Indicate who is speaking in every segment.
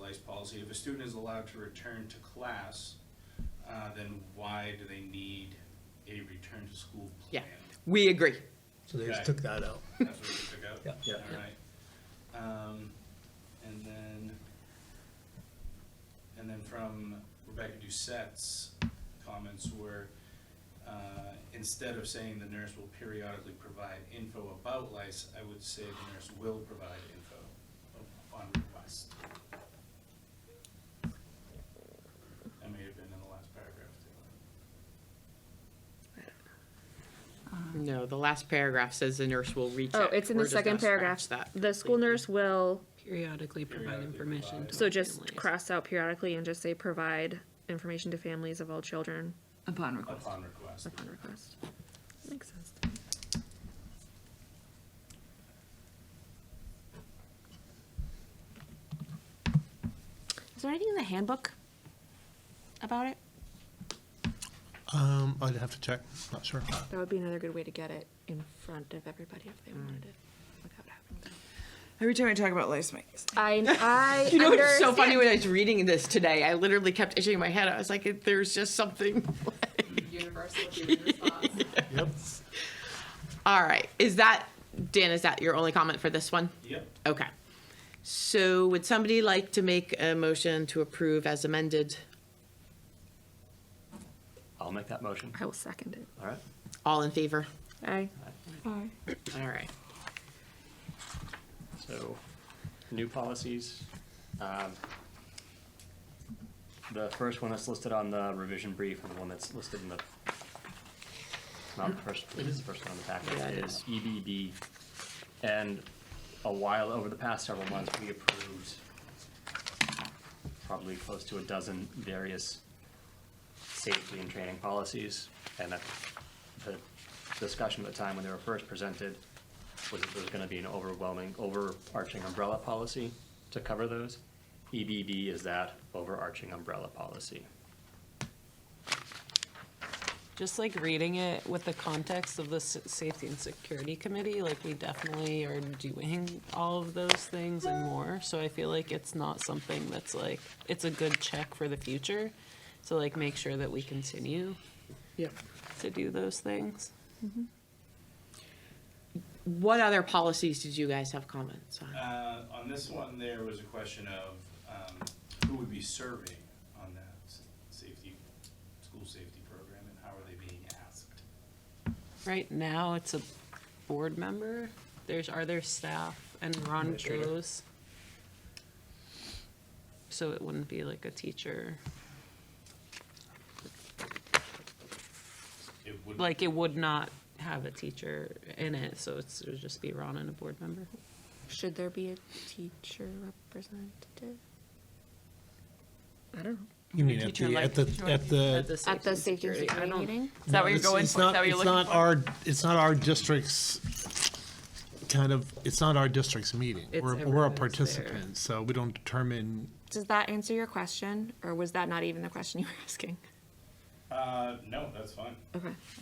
Speaker 1: lice E policy, if a student is allowed to return to class, uh, then why do they need a return to school
Speaker 2: Yeah,
Speaker 1: plan?
Speaker 2: we agree.
Speaker 3: So they
Speaker 1: Okay.
Speaker 3: just took that out.
Speaker 1: That's what we took out?
Speaker 3: Yeah. Yeah.
Speaker 1: All right. Um, and then, and then from Rebecca Doucette's comments were, uh, instead of saying the nurse will periodically provide info about lice, I would say the nurse will provide info on request. That may have been in the last paragraph too.
Speaker 2: No, the last paragraph says the nurse will reach
Speaker 4: Oh,
Speaker 2: out.
Speaker 4: it's in the
Speaker 2: We're just gonna
Speaker 4: second paragraph.
Speaker 2: scratch that
Speaker 4: The school nurse will,
Speaker 5: Periodically provide
Speaker 1: Periodically
Speaker 5: information.
Speaker 1: provide.
Speaker 5: to
Speaker 4: so
Speaker 5: all
Speaker 4: just
Speaker 5: families.
Speaker 4: cross out periodically and just say provide information to families of all children
Speaker 6: Upon request.
Speaker 1: upon request.
Speaker 4: upon request. Makes sense.
Speaker 7: Is there anything in the handbook about it?
Speaker 3: Um, I'd have to check, not sure.
Speaker 4: That would be another good way to get it in front of everybody if
Speaker 2: Mm.
Speaker 4: they wanted it without having to.
Speaker 6: Every time I talk about lice, my
Speaker 4: I, I
Speaker 2: You know, it's so
Speaker 4: understand.
Speaker 2: funny when I was reading this today, I literally kept itching my head. I was like, there's just something.
Speaker 5: Universal human response.
Speaker 3: Yep.
Speaker 2: All right, is that, Dan, is that your only comment for this one?
Speaker 1: Yep,
Speaker 2: Okay. So would somebody like to make a motion to approve as amended?
Speaker 8: I'll make that motion.
Speaker 4: I will second it.
Speaker 8: All right.
Speaker 2: All in favor?
Speaker 4: Aye. Aye.
Speaker 2: All right.
Speaker 8: So, new policies. Um, The first one that's listed on the revision brief and the one that's listed in the, not the first, it is the first one on the
Speaker 2: Yeah, it
Speaker 8: packet,
Speaker 2: is.
Speaker 8: is EBD. And a while, over the past several months, we approved probably close to a dozen various safety and training policies. And at the discussion at the time when they were first presented was that there's gonna be an overwhelming, overarching umbrella policy to cover those. EBB is that overarching umbrella policy.
Speaker 5: Just like reading it with the context of the S- Safety and Security Committee, like we definitely are doing all of those things and more. So I feel like it's not something that's like, it's a good check for the future to like make sure that we continue
Speaker 2: Yep.
Speaker 5: to do those things.
Speaker 2: What other policies did you guys have comments on?
Speaker 1: Uh, on this one, there was a question of, um, who would be serving on that s- safety, school safety program, and how are they being asked?
Speaker 5: Right now, it's a board member. There's, are there staff and Ron
Speaker 3: Administrator.
Speaker 5: goes. So it wouldn't be like a teacher,
Speaker 1: It would,
Speaker 5: like it would not have a teacher in it, so it's, it would just be Ron and a board member.
Speaker 4: Should there be a teacher representative? I don't know.
Speaker 3: You mean at
Speaker 5: Teacher
Speaker 3: the,
Speaker 5: like-
Speaker 3: at the, at the.
Speaker 4: At the safety and
Speaker 5: I
Speaker 4: security
Speaker 5: don't-
Speaker 4: meeting?
Speaker 6: Is that what you're
Speaker 3: It's-
Speaker 6: going for?
Speaker 3: it's
Speaker 6: Is that
Speaker 3: not-
Speaker 6: what you're
Speaker 3: It's
Speaker 6: looking
Speaker 3: not
Speaker 6: for?
Speaker 3: our, it's not our district's kind of, it's not our district's meeting.
Speaker 5: It's
Speaker 3: We're, we're a
Speaker 5: everyone's there.
Speaker 3: participant, so we don't determine,
Speaker 4: Does that answer your question, or was that not even the question you were asking?
Speaker 1: uh, no, that's fine.
Speaker 4: Okay.
Speaker 1: That's-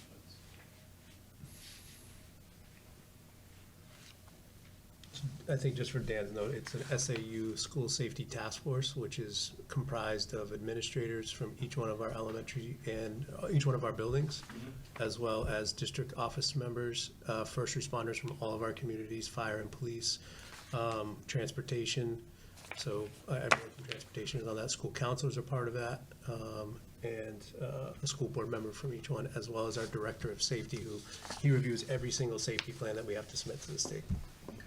Speaker 3: I think just for Dan's note, it's an SAU School Safety Task Force, which is comprised of administrators from each one of our elementary and uh, each one of our buildings, as well as district office members, uh, first responders from all of our communities, fire and police, um, transportation. So uh, everyone from transportation is on that. School counselors are part of that. um, And uh, a school board member from each one, as well as our director of safety, who he reviews every single safety plan that we have to submit to the state.
Speaker 1: okay.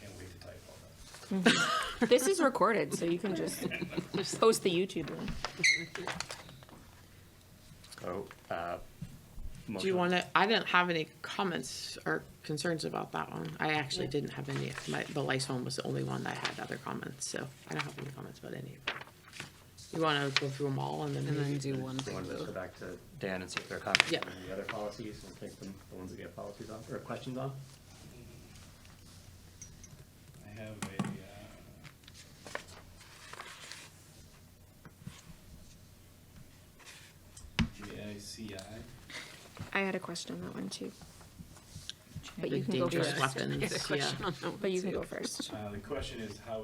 Speaker 1: Can't wait to type all that.
Speaker 4: This is recorded, so you can just post the YouTube link.
Speaker 8: So, uh.
Speaker 2: Do you want to, I didn't have any comments or concerns about that one. I actually didn't have any, my, the lice one was the only one that had other comments, so I don't have any comments about any of them. You want to go through them all and then?
Speaker 5: And then
Speaker 2: maybe-
Speaker 5: do one
Speaker 8: to
Speaker 5: thing.
Speaker 8: just go back to Dan and see if there are comments
Speaker 2: Yeah.
Speaker 8: on the other policies and take them, the ones that we have policies on, or questions on?
Speaker 1: I have a, uh, uh, GICI.
Speaker 4: I had a question on that one too. But
Speaker 2: The
Speaker 4: you can go
Speaker 2: dangerous
Speaker 4: first.
Speaker 2: weapons, yeah.
Speaker 4: But you can go first.
Speaker 1: Uh, the question is, how